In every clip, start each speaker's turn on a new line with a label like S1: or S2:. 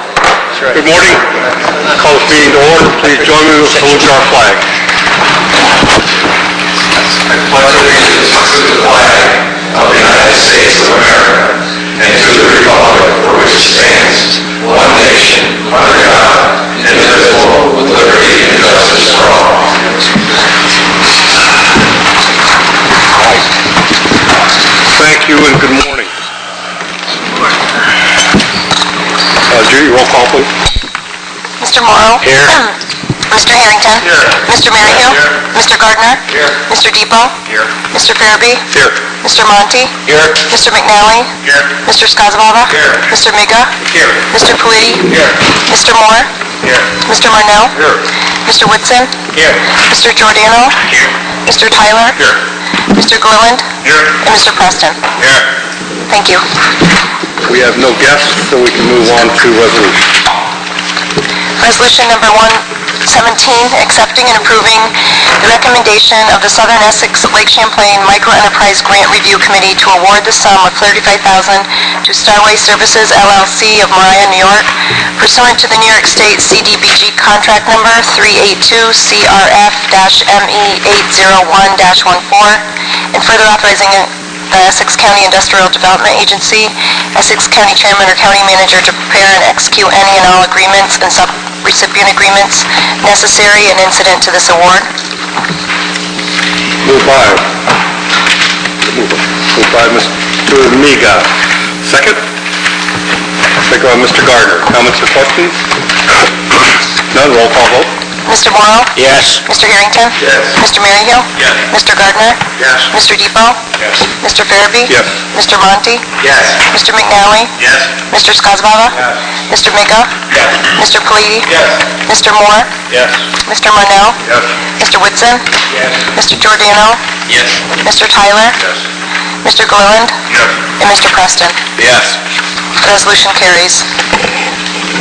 S1: Good morning. Call this meeting to order. Please join me in saluting our flag.
S2: pledge allegiance to the flag of the United States of America and to the republic for which it stands, one nation, under God, indivisible, with liberty and justice for all.
S1: Thank you and good morning. Uh, Judy, roll call, please.
S3: Mr. Morrow?
S1: Here.
S3: Mr. Harrington?
S1: Here.
S3: Mr. Maryhill?
S1: Here.
S3: Mr. Gardner?
S1: Here.
S3: Mr. Depot?
S1: Here.
S3: Mr. Farabee?
S1: Here.
S3: Mr. Monty?
S1: Here.
S3: Mr. McNally?
S1: Here.
S3: Mr. Skozavala?
S1: Here.
S3: Mr. Miga?
S1: Here.
S3: Mr. Palooty?
S1: Here.
S3: Mr. Moore?
S1: Here.
S3: Mr. Marnell?
S1: Here.
S3: Mr. Whitson?
S1: Here.
S3: Mr. Giordano?
S1: Here.
S3: Mr. Tyler?
S1: Here.
S3: Mr. Gorland?
S1: Here.
S3: And Mr. Preston?
S1: Here.
S3: Thank you.
S1: We have no guests, so we can move on to resolution.
S3: Resolution number 117, accepting and approving the recommendation of the Southern Essex Lake Champlain Microenterprise Grant Review Committee to award the sum of $35,000 to Starway Services LLC of Mariah, New York pursuant to the New York State CDBG contract number E 382CRF-ME801-14, and further authorizing the Uh, Essex County Industrial Development Agency, Essex County Chairman or County Manager to prepare and execute any and all agreements and sub-recipient agreements necessary and incident to this award.
S1: Move by. Move by Mr. Miga. Second? Second by Mr. Gardner. Comments or questions? None, roll call vote.
S3: Mr. Morrow?
S1: Yes.
S3: Mr. Harrington?
S1: Yes.
S3: Mr. Maryhill?
S1: Yes.
S3: Mr. Gardner?
S1: Yes.
S3: Mr. Depot?
S1: Yes.
S3: Mr. Farabee?
S1: Yes.
S3: Mr. Monty?
S1: Yes.
S3: Mr. McNally?
S1: Yes.
S3: Mr. Skozavala? Mr. Miga?
S1: Yes.
S3: Mr. Palooty?
S1: Yes.
S3: Mr. Moore?
S1: Yes.
S3: Mr. Marnell?
S1: Yes.
S3: Mr. Whitson?
S1: Yes.
S3: Mr. Giordano?
S1: Yes.
S3: Mr. Tyler?
S1: Yes.
S3: Mr. Gilliland? And Mr. Preston?
S1: Yes.
S3: Resolution carries.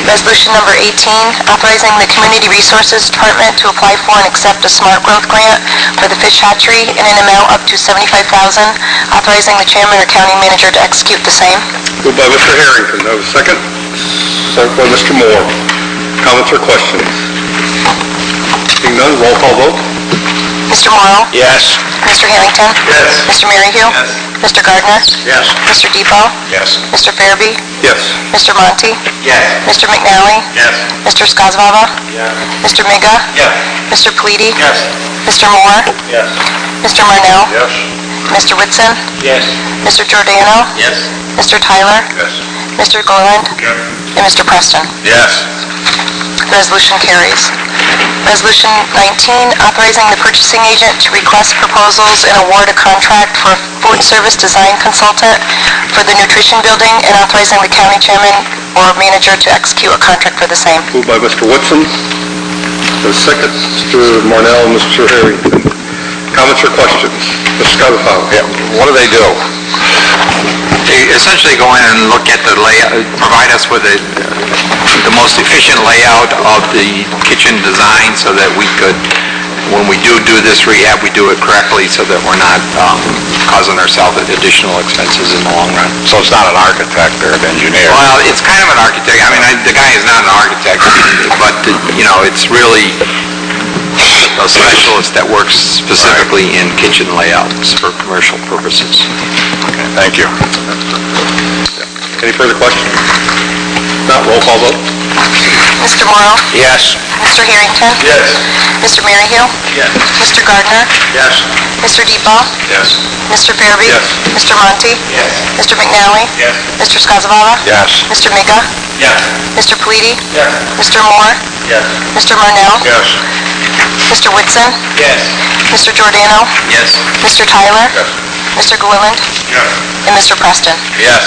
S3: Resolution number 18, authorizing the Community Resources Department to apply for and accept a smart growth grant for the fish hatchery in an amount up to $75,000, authorizing the chairman or county manager to execute the same.
S1: Moved by Mr. Harrington, that was second. Second by Mr. Moore. Comments or questions? Seeing none, roll call vote.
S3: Mr. Morrow?
S1: Yes.
S3: Mr. Harrington?
S1: Yes.
S3: Mr. Maryhill?
S1: Yes.
S3: Mr. Gardner?
S1: Yes.
S3: Mr. Depot?
S1: Yes.
S3: Mr. Farabee?
S1: Yes.
S3: Mr. Monty?
S1: Yes.
S3: Mr. McNally?
S1: Yes.
S3: Mr. Skozavala?
S1: Yes.
S3: Mr. Miga?
S1: Yes.
S3: Mr. Palooty?
S1: Yes.
S3: Mr. Moore?
S1: Yes.
S3: Mr. Marnell?
S1: Yes.
S3: Mr. Whitson?
S1: Yes.
S3: Mr. Giordano,
S1: Yes.
S3: Mr. Tyler,
S1: Yes.
S3: Mr. Gorland, and Mr. Preston.
S1: Yes.
S3: Resolution carries. Resolution 19, authorizing the purchasing agent to request proposals and award a contract for a food service design consultant for the nutrition building and authorizing the county chairman or manager to execute a contract for the same.
S1: Moved by Mr. Woodson. The second, Mr. Marnell and Mr. Harrington. Comments or questions? Mr. Scottafowl?
S4: Yeah, what do they do? They essentially go in and look at the layout, provide us with the, the most efficient layout of the kitchen design so that we could, when we do do this rehab, we do it correctly so that we're not um, causing ourselves additional expenses in the long run.
S2: So it's not an architect or an engineer?
S4: Well, it's kind of an architect, I mean, I- the guy is not an architect, but, you know, it's really a specialist that works specifically in kitchen layouts for commercial purposes.
S2: Thank you.
S1: Any further questions? Not Uh, roll call vote?
S3: Mr. Morrow,
S1: Yes.
S3: Mr. Harrington,
S1: Yes.
S3: Mr. Maryhill,
S1: Yes.
S3: Mr. Gardner,
S1: Yes.
S3: Mr. Depot,
S1: Yes.
S3: Mr. Farabee,
S1: Yes.
S3: Mr. Monty,
S1: Yes.
S3: Mr. McNally,
S1: Yes.
S3: Mr. Skozavala,
S1: Yes.
S3: Mr. Miga,
S1: Yes.
S3: Mr. Palooty,
S1: Yes.
S3: Mr. Moore,
S1: Yes.
S3: Mr. Marnell,
S1: Yes.
S3: Mr. Whitson,
S1: Yes.
S3: Mr. Giordano,
S1: Yes.
S3: Mr. Tyler, Mr. Gilliland,
S1: Yes.
S3: and Mr. Preston.
S1: Yes.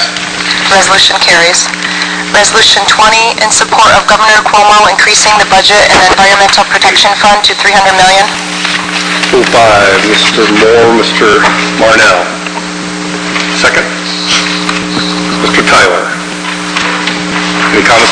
S3: Resolution carries. Resolution 20, in support of Governor Cuomo increasing the budget and Environmental Protection Fund to 300 million.
S1: Moved by Mr. Moore, Mr. Marnell. Second. Mr. Tyler. Any comments